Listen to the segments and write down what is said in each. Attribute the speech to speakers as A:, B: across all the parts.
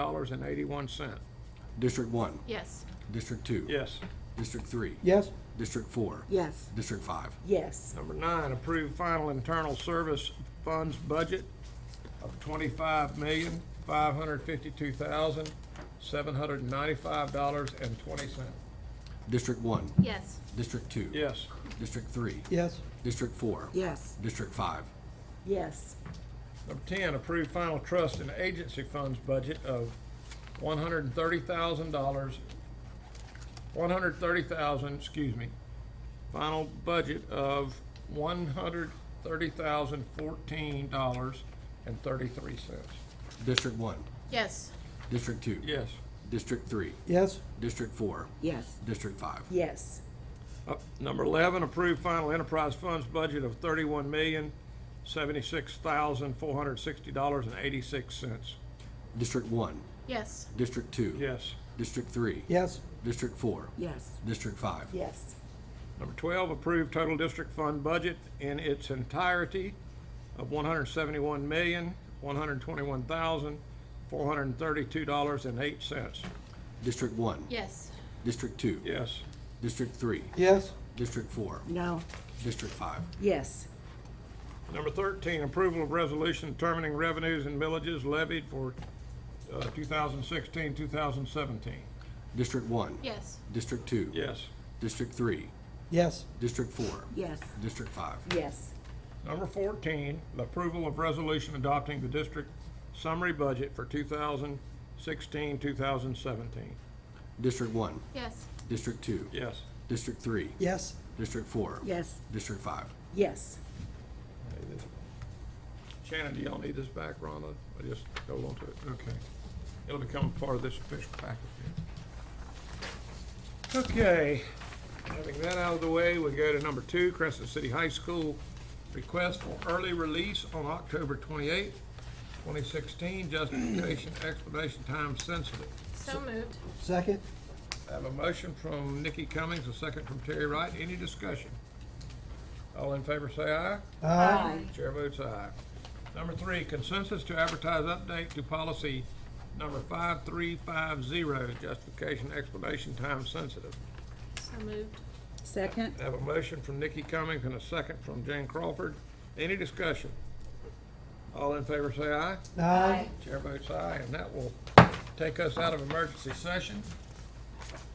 A: dollars and eighty-one cent.
B: District one,
C: Yes.
B: District two.
A: Yes.
B: District three.
D: Yes.
B: District four.
E: Yes.
B: District five.
E: Yes.
A: Number nine, approve final internal service funds budget of twenty-five million, five hundred fifty-two thousand, seven hundred ninety-five dollars and twenty cent.
B: District one,
C: Yes.
B: District two.
A: Yes.
B: District three.
D: Yes.
B: District four.
E: Yes.
B: District five.
E: Yes.
A: Number ten, approve final trust and agency funds budget of one hundred and thirty thousand dollars, one hundred thirty thousand, excuse me, final budget of one hundred thirty thousand fourteen dollars and thirty-three cents.
B: District one,
C: Yes.
B: District two.
A: Yes.
B: District three.
D: Yes.
B: District four.
E: Yes.
B: District five.
E: Yes.
A: Uh, Number eleven, approve final enterprise funds budget of thirty-one million, seventy-six thousand, four hundred sixty dollars and eighty-six cents.
B: District one,
C: Yes.
B: District two.
A: Yes.
B: District three.
D: Yes.
B: District four.
E: Yes.
B: District five.
E: Yes.
A: Number 12, approve total district fund budget in its entirety of $171,121,432.08.
B: District one.
C: Yes.
B: District two.
A: Yes.
B: District three.
D: Yes.
B: District four.
E: No.
B: District five.
E: Yes.
A: Number 13, approval of resolution determining revenues and millages levied for uh, 2016, 2017.
B: District one.
C: Yes.
B: District two.
A: Yes.
B: District three.
D: Yes.
B: District four.
E: Yes.
B: District five.
E: Yes.
A: Number 14, the approval of resolution adopting the district summary budget for 2016, 2017.
B: District one.
C: Yes.
B: District two.
A: Yes.
B: District three.
D: Yes.
B: District four.
E: Yes.
B: District five.
E: Yes.
A: Shannon, do y'all need this back, Ron? I just hold on to it. Okay. It'll become part of this official package. here. Okay, having that out of the way, we go to number two, Crescent City High School. Request for early release on October twenty-eighth, twenty sixteen, justification, explanation, time sensitive.
C: So moved.
D: Second.
A: I have a motion from Nikki Cummings, a second from Terry Wright. Any discussion? All in favor, say aye.
D: Aye.
A: Chair votes aye. Number three, consensus to advertise update to policy number 5350, justification, explanation, time sensitive.
C: So moved.
E: Second.
A: I have a motion from Nikki Cummings and a second from Jane Crawford. Any discussion? All in favor say aye.
D: Aye.
A: Chair votes aye, and that will take us out of emergency session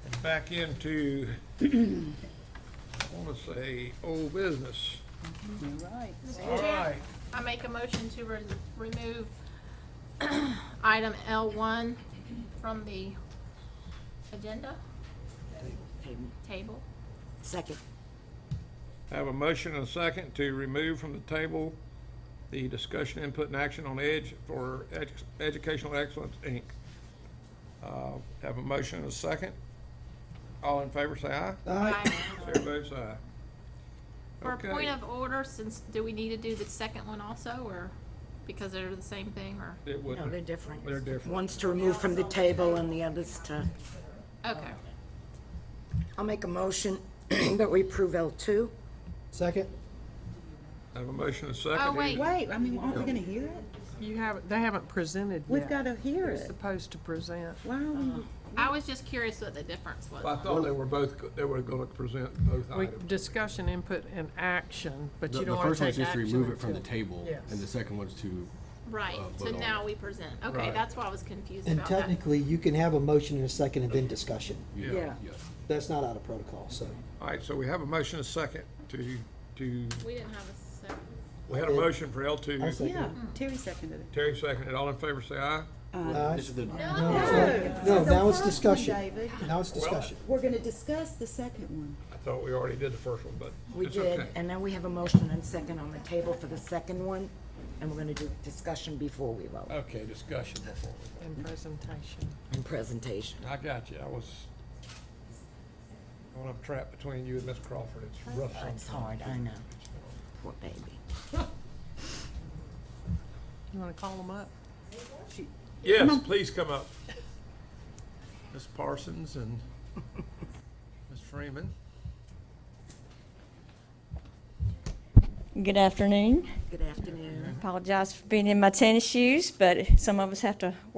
A: and back into, I want to say, old business. All
C: Mr.
A: right.
C: Chair, I make a motion to re- remove item L1 from the agenda table.
E: Second.
A: Have a motion and a second to remove from the table the discussion, input, and action on EDGE for Edu- Educational Excellence, Inc. Uh, Have a motion and a second. All in favor, say aye.
D: Aye.
A: Chair votes aye.
C: For a
A: Okay.
C: point of order, since, do we need to do the second one also, or because they're the same thing, or?
A: It would,
E: No, they're different.
A: they're different.
E: One's to remove from the table and the other's to,
C: Okay.
E: I'll make a motion that we approve L2.
D: Second.
A: Have a motion and a second.
C: Oh, wait.
F: Wait, I mean, aren't we gonna hear it?
G: You haven't, they haven't presented yet.
F: We've gotta hear
G: They're
F: it.
G: supposed to present.
F: Why are we?
C: I was just curious what the difference was.
A: I thought they were both, go- they were going to present both
G: We,
A: items.
G: discussion, input, and action, but
B: The
G: you
B: the
G: don't want
B: first
G: to
B: one's
G: take
B: just to
G: action.
B: remove it from the
G: until-
B: table,
G: Yes.
B: and the second one's to,
C: Right,
B: Uh,
C: so
B: vote on
C: now we present. Okay,
A: Right.
C: that's why I was confused
D: And
C: about that.
D: technically, you can have a motion and a second and then discussion.
B: yeah,
E: Yeah.
B: yes.
D: That's not out of protocol, so.
A: All right, so we have a motion and a second to, to,
C: We didn't have a second.
A: we had a motion for
D: I
A: L2.
D: second.
F: Yeah, Terry seconded it.
A: Terry seconded. All in favor, say aye.
D: Aye.
B: This is the,
D: No, now it's
F: The first one,
D: discussion.
F: David.
D: Now it's discussion.
F: We're gonna discuss the second one.
A: I thought we already did the first one, but
E: We
A: it's okay.
E: did, and then we have a motion and second on the table for the second one, and we're gonna do discussion before we vote
A: Okay, discussion before
G: And presentation.
E: and presentation.
A: we. I got you, I was, when I'm trapped between you and Miss Crawford, it's rough
E: It's
A: sometimes.
E: hard, I know. Poor baby.
G: You want to call them up?
A: Yes, please come up. Miss Parsons and Miss Freeman.
H: Good afternoon.
E: Good afternoon.
H: Apologize for being in my tennis shoes, but some of us have to